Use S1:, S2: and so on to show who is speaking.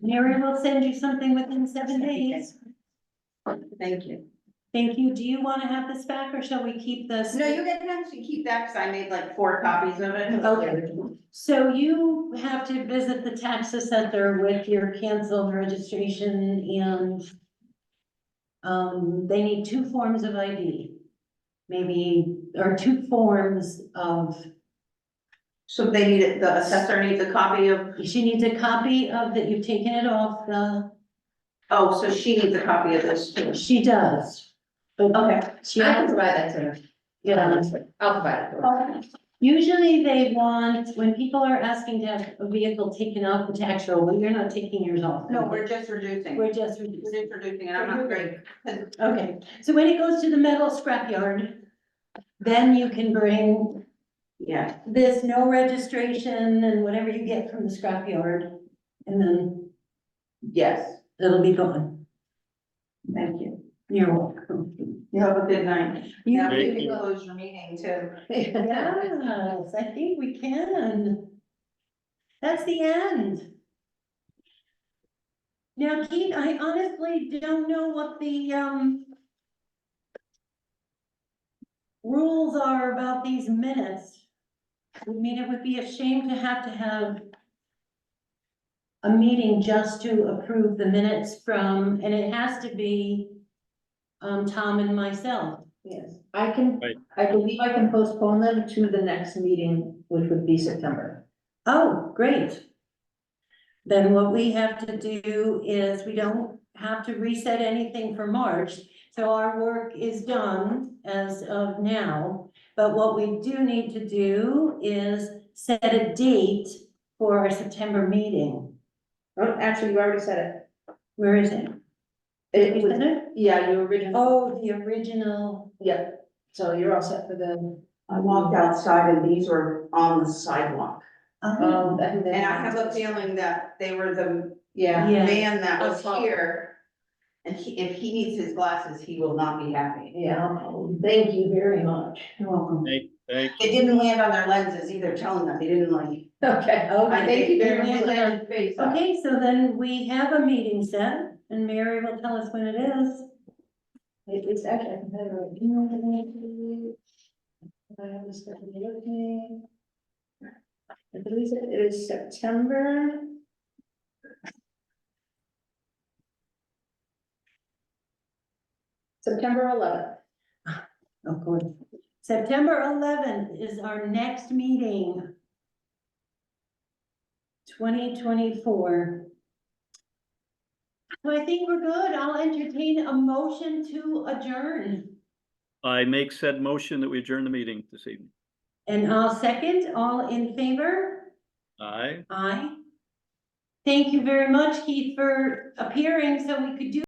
S1: Mary will send you something within seven days.
S2: Thank you.
S1: Thank you. Do you want to have this back or shall we keep this?
S2: No, you can actually keep that, because I made like four copies of it.
S1: Okay. So you have to visit the tax assessor with your canceled registration and um, they need two forms of ID, maybe, or two forms of,
S2: So they need, it- the assessor needs a copy of,
S1: she needs a copy of that you've taken it off the,
S2: oh, so she needs a copy of this too.
S1: she does. But
S2: Okay.
S1: she,
S3: I can provide that to her. Um,
S1: yeah.
S3: I'll provide it to her.
S1: Usually they want, when people are asking to have a vehicle taken off the tax roll, well, you're not taking yours off.
S2: No, we're just reducing.
S1: We're just
S2: We're
S1: reducing.
S2: just reducing, and I'm not great.
S1: Okay, so when it goes to the metal scrapyard, then you can bring
S2: Yeah,
S1: this no registration and whatever you get from the scrapyard. And then
S2: yes,
S1: it'll be gone.
S2: thank you.
S1: You're welcome.
S2: You have a good night.
S1: You-
S2: Now,
S4: Thank
S2: you can
S4: you.
S2: close your meeting too.
S1: Yes, I think we can. That's the end. Now, Keith, I honestly don't know what the, um, rules are about these minutes. I mean, it would be a shame to have to have a meeting just to approve the minutes from, and it has to be, um, Tom and myself.
S3: Yes, I can,
S4: Right.
S3: I believe I can postpone them to the next meeting, which would be September.
S1: Oh, great. Then what we have to do is we don't have to reset anything for March. So our work is done as of now. But what we do need to do is set a date for our September meeting.
S3: Oh, actually, you already said
S1: Where is it?
S3: it.
S1: Did
S3: It
S1: we
S3: was,
S1: set it?
S3: yeah, you originally,
S1: Oh, the original.
S3: yeah, so you're all set for the, um,
S2: I walked outside and these were on the sidewalk.
S1: Oh.
S3: um, I think that-
S2: And I have a feeling that they were the
S3: Yeah,
S1: Yeah,
S2: man that was
S3: Us all.
S2: here. And he, if he needs his glasses, he will not be happy.
S3: yeah, thank you very much.
S1: you're welcome.
S4: Thank, thank,
S2: It didn't land on their lenses either, telling them, they didn't like.
S3: Okay.
S2: I think
S1: Okay.
S2: it didn't land on their face.
S1: Okay, so then we have a meeting set and Mary will tell us when it is.
S3: It- It's actually, I can have a email to Uh, me. I have this stuff in the other thing. I believe it is September. September eleventh.
S1: Of course. September eleventh is our next meeting. Twenty twenty-four. So I think we're good. I'll entertain a motion to adjourn.
S4: I make said motion that we adjourn the meeting this evening.
S1: And I'll second, all in favor?
S4: Aye.
S1: Aye. Thank you very much, Keith, for appearing so we could do